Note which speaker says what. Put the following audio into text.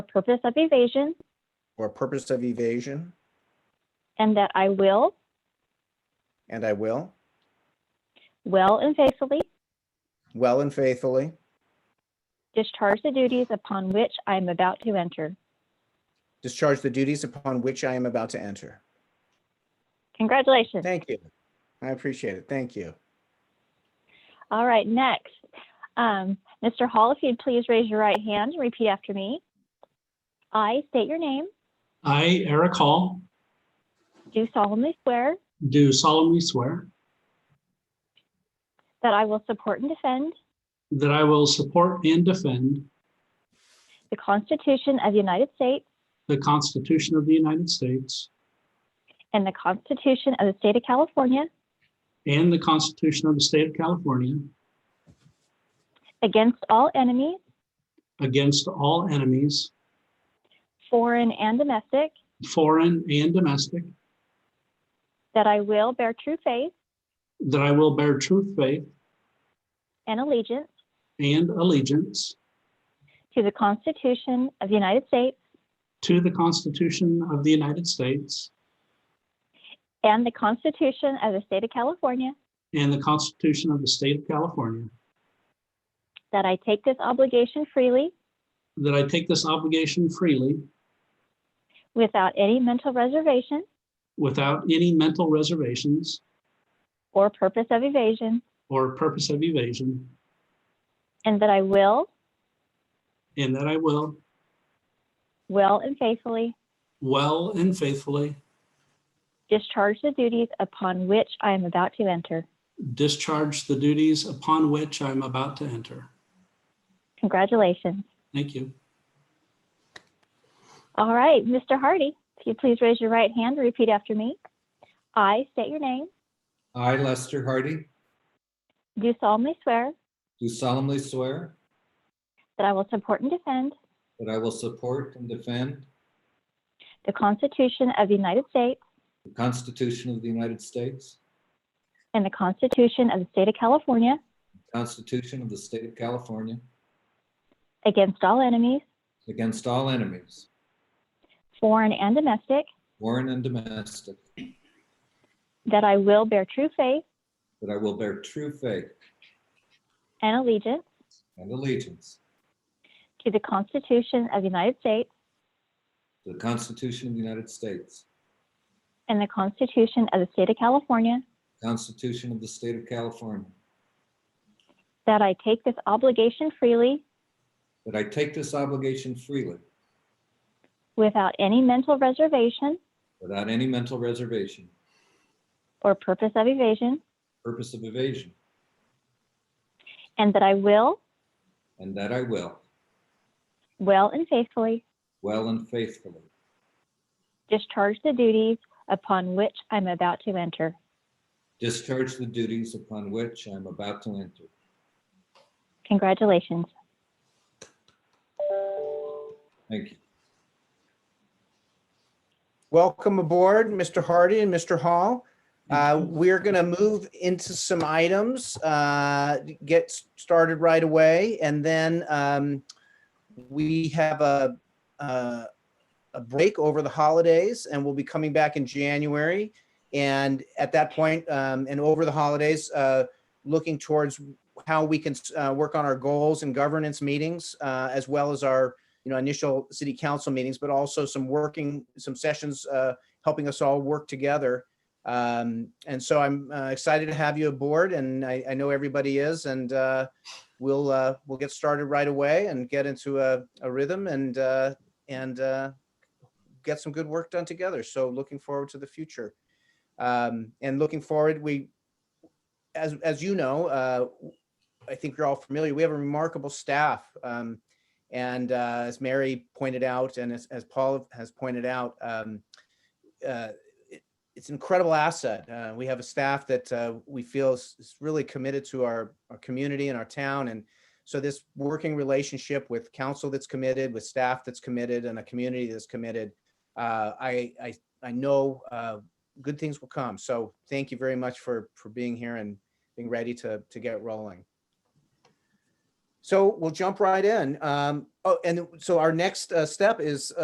Speaker 1: purpose of evasion,
Speaker 2: or purpose of evasion,
Speaker 1: and that I will,
Speaker 2: and I will,
Speaker 1: well and faithfully,
Speaker 2: well and faithfully,
Speaker 1: discharge the duties upon which I am about to enter.
Speaker 2: discharge the duties upon which I am about to enter.
Speaker 1: Congratulations.
Speaker 2: Thank you. I appreciate it. Thank you.
Speaker 1: All right, next. Um, Mr. Hall, if you'd please raise your right hand and repeat after me. I state your name,
Speaker 3: I, Eric Hall,
Speaker 1: do solemnly swear
Speaker 3: do solemnly swear
Speaker 1: that I will support and defend
Speaker 3: that I will support and defend
Speaker 1: the Constitution of the United States
Speaker 3: the Constitution of the United States
Speaker 1: and the Constitution of the State of California
Speaker 3: and the Constitution of the State of California
Speaker 1: against all enemies,
Speaker 3: against all enemies,
Speaker 1: foreign and domestic,
Speaker 3: foreign and domestic,
Speaker 1: that I will bear true faith
Speaker 3: that I will bear true faith
Speaker 1: and allegiance
Speaker 3: and allegiance
Speaker 1: to the Constitution of the United States
Speaker 3: to the Constitution of the United States
Speaker 1: and the Constitution of the State of California,
Speaker 3: and the Constitution of the State of California,
Speaker 1: that I take this obligation freely
Speaker 3: that I take this obligation freely
Speaker 1: without any mental reservation
Speaker 3: without any mental reservations
Speaker 1: or purpose of evasion,
Speaker 3: or purpose of evasion,
Speaker 1: and that I will,
Speaker 3: and that I will
Speaker 1: well and faithfully,
Speaker 3: well and faithfully
Speaker 1: discharge the duties upon which I am about to enter.
Speaker 3: discharge the duties upon which I'm about to enter.
Speaker 1: Congratulations.
Speaker 3: Thank you.
Speaker 1: All right, Mr. Hardy, if you please raise your right hand and repeat after me. I state your name,
Speaker 4: I, Lester Hardy,
Speaker 1: do solemnly swear
Speaker 4: do solemnly swear
Speaker 1: that I will support and defend
Speaker 4: that I will support and defend
Speaker 1: the Constitution of the United States
Speaker 4: the Constitution of the United States,
Speaker 1: and the Constitution of the State of California
Speaker 4: the Constitution of the State of California,
Speaker 1: against all enemies,
Speaker 4: against all enemies,
Speaker 1: foreign and domestic,
Speaker 4: foreign and domestic,
Speaker 1: that I will bear true faith
Speaker 4: that I will bear true faith
Speaker 1: and allegiance
Speaker 4: and allegiance
Speaker 1: to the Constitution of the United States
Speaker 4: to the Constitution of the United States,
Speaker 1: and the Constitution of the State of California,
Speaker 4: the Constitution of the State of California,
Speaker 1: that I take this obligation freely
Speaker 4: that I take this obligation freely
Speaker 1: without any mental reservation
Speaker 4: without any mental reservation,
Speaker 1: or purpose of evasion,
Speaker 4: purpose of evasion,
Speaker 1: and that I will,
Speaker 4: and that I will,
Speaker 1: well and faithfully,
Speaker 4: well and faithfully,
Speaker 1: discharge the duties upon which I'm about to enter.
Speaker 4: discharge the duties upon which I am about to enter.
Speaker 1: Congratulations.
Speaker 4: Thank you.
Speaker 2: Welcome aboard, Mr. Hardy and Mr. Hall. Uh, We're going to move into some items, uh, get s- started right away, and then um, we have a, a a break over the holidays, and we'll be coming back in January. And at that point, um, and over the holidays, uh, looking towards how we can uh, work on our goals and governance meetings, uh, as well as our you know, initial city council meetings, but also some working, some sessions, uh, helping us all work together. Um, and so I'm uh, excited to have you aboard and I, I know everybody is and, uh, we'll, uh, we'll get started right away and get into a, a rhythm and, uh, and, uh, get some good work done together. So looking forward to the future. Um, and looking forward, we, as, as you know, uh, I think you're all familiar, we have a remarkable staff. Um, and uh, as Mary pointed out, and as, as Paul has pointed out, um, uh, it, it's an incredible asset. Uh, we have a staff that uh, we feel is, is really committed to our, our community and our town. And so this working relationship with council that's committed, with staff that's committed, and a community that's committed, uh, I, I, I know uh, good things will come. So thank you very much for, for being here and being ready to, to get rolling. So we'll jump right in. Um, oh, and so our next uh, step is